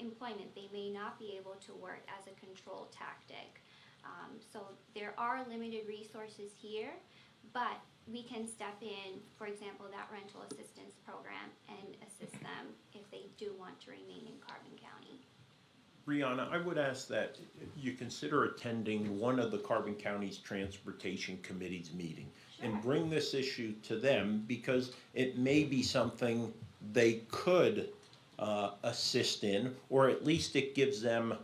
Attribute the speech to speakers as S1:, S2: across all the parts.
S1: employment, they may not be able to work as a control tactic. Um, so there are limited resources here, but we can step in, for example, that rental assistance program and assist them if they do want to remain in Carbon County.
S2: Brianna, I would ask that you consider attending one of the Carbon County's Transportation Committee's meeting and bring this issue to them because it may be something they could uh, assist in, or at least it gives them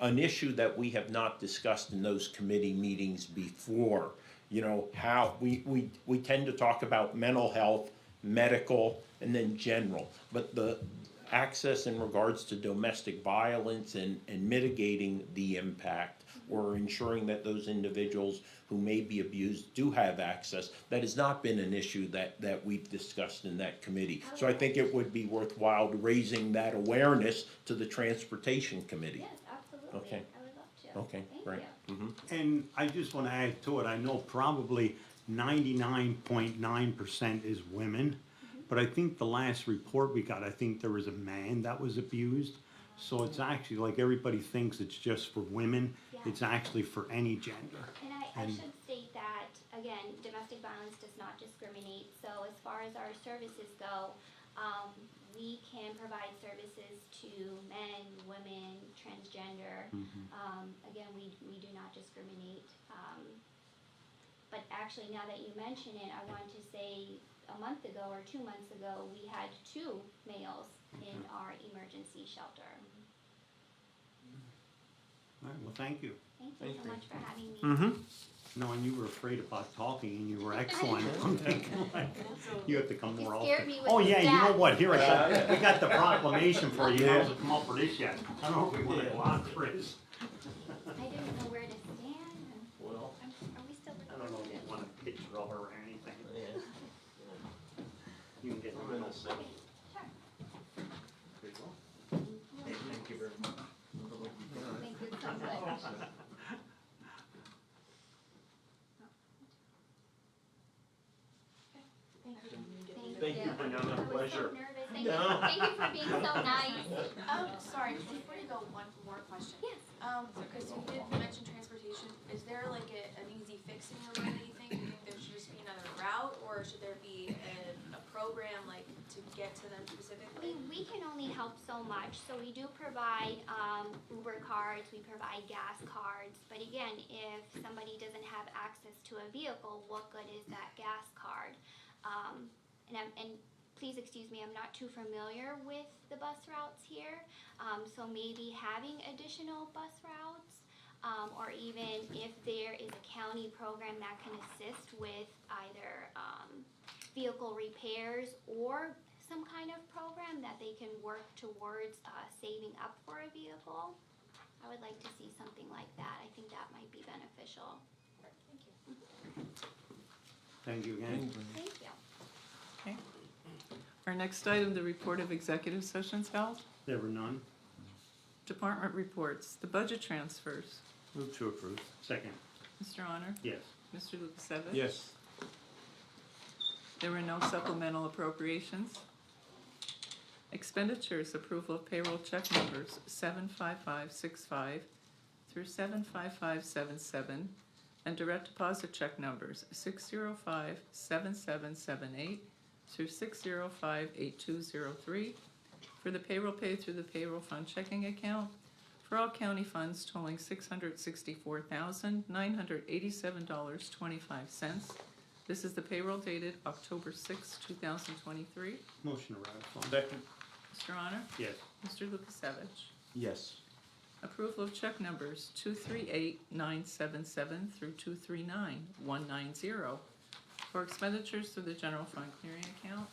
S2: an issue that we have not discussed in those committee meetings before. You know, how, we, we, we tend to talk about mental health, medical, and then general. But the access in regards to domestic violence and, and mitigating the impact or ensuring that those individuals who may be abused do have access, that has not been an issue that, that we've discussed in that committee. So I think it would be worthwhile raising that awareness to the Transportation Committee.
S1: Yes, absolutely.
S2: Okay.
S1: I would love to.
S2: Okay,
S1: Thank
S2: great.
S1: you.
S3: And I just want to add to it, I know probably ninety-nine point nine percent is women, but I think the last report we got, I think there was a man that was abused. So it's actually like everybody thinks it's just for women,
S1: Mm-hmm. Yeah.
S3: it's actually for any gender.
S1: And I, I
S3: And-
S1: should state that, again, domestic violence does not discriminate, so as far as our services go, um, we can provide services to men, women, transgender. Um, again, we, we do not discriminate, um, but actually, now that you mention it, I want to say a month ago or two months ago, we had two males in our emergency shelter.
S3: All right, well, thank you.
S1: Thank you Mm. so much for having me.
S3: Knowing you were afraid about talking and you were excellent, I'm thinking like, you have to come
S1: You
S3: more often.
S1: scared me with
S3: Oh, yeah, you know
S1: that.
S3: what, here, I got, we got the proclamation for you, I haven't come up with this yet. I don't know if we want to go on, Chris.
S1: I didn't know where to stand.
S3: Well.
S1: I'm- Are we still
S3: I don't know if
S1: recording?
S3: you want a picture of her or anything. You can get a little second. Hey, thank you very much.
S1: Thank you so much.
S3: Thank you,
S1: I
S3: Brianna,
S1: was so
S3: pleasure.
S1: nervous. Thank you, thank you for being so nice.
S4: Um, sorry, before you go, one more question.
S1: Yes.
S4: Um, because you did mention transportation, is there like a, an easy fix in your mind that you think? Do you think there should just be another route, or should there be a, a program like to get to them
S1: I mean,
S4: specifically?
S1: we can only help so much, so we do provide, um, Uber cards, we provide gas cards, but again, if somebody doesn't have access to a vehicle, what good is that gas card? Um, and I'm, and please excuse me, I'm not too familiar with the bus routes here, um, so maybe having additional bus routes, um, or even if there is a county program that can assist with either, um, vehicle repairs or some kind of program that they can work towards uh, saving up for a vehicle. I would like to see something like that. I think that might be beneficial.
S4: Thank you.
S3: Thank you again.
S1: Thank you.
S5: Our next item, the report of executive sessions held.
S3: There were none.
S5: Department reports, the budget transfers.
S3: Move to approve. Second,
S5: Mr. Honor?
S3: yes.
S5: Mr. Lukasevich?
S2: Yes.
S5: There were no supplemental appropriations. Expenditures, approval of payroll check numbers seven five five six five through seven five five seven seven, and direct deposit check numbers six zero five seven seven seven eight through six zero five eight two zero three for the payroll paid through the payroll fund checking account for all county funds totaling six hundred sixty-four thousand nine hundred eighty-seven dollars twenty-five cents. This is the payroll dated October sixth, two thousand twenty-three.
S3: Motion to ratify.
S2: Second?
S5: Mr. Honor?
S3: Yes.
S5: Mr. Lukasevich?
S2: Yes.
S5: Approval of check numbers two three eight nine seven seven through two three nine one nine zero for expenditures through the general fund clearing account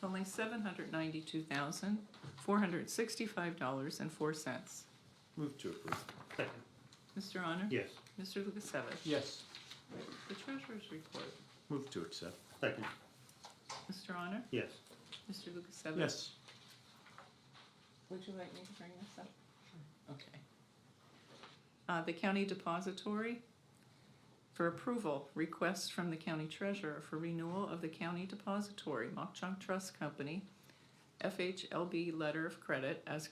S5: totaling seven hundred ninety-two thousand four hundred sixty-five dollars and four cents.
S2: Move to approve.
S3: Second,
S5: Mr. Honor?
S3: yes.
S5: Mr. Lukasevich?
S2: Yes.
S5: The treasurer's report.
S2: Move to accept.
S3: Second,
S5: Mr. Honor?
S3: yes.
S5: Mr. Lukasevich?
S2: Yes.
S5: Would you like me to bring this up? Okay. Uh, the county depository, for approval, request from the county treasurer for renewal of the county depository, Mock Chunk Trust Company, FHLB letter of credit as